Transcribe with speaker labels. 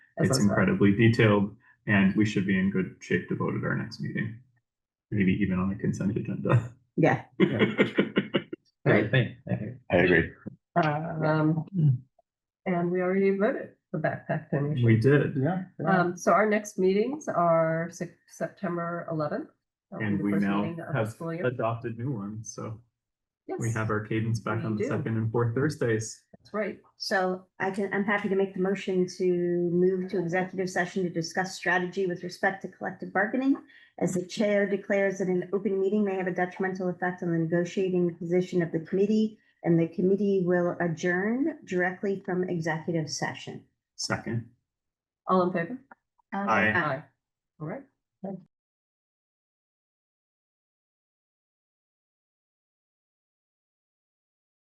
Speaker 1: It's incredibly detailed, and we should be in good shape to vote at our next meeting. Maybe even on the consent agenda.
Speaker 2: Yeah.
Speaker 3: Great thing. I think.
Speaker 4: I agree.
Speaker 5: Um, and we already voted the backpack donation.
Speaker 1: We did,
Speaker 3: Yeah.
Speaker 5: Um, so our next meetings are Sep- September eleventh.
Speaker 1: and we now have adopted new ones, so we
Speaker 5: Yes,
Speaker 1: have our cadence back
Speaker 5: We
Speaker 1: on the
Speaker 5: do.
Speaker 1: second and fourth Thursdays.
Speaker 5: that's right.
Speaker 2: So I can, I'm happy to make the motion to move to executive session to discuss strategy with respect to collective bargaining. As the chair declares that an open meeting may have a detrimental effect on the negotiating position of the committee. And the committee will adjourn directly from executive session.
Speaker 1: Second,
Speaker 5: All in favor?
Speaker 1: Aye.
Speaker 5: Aye. All right.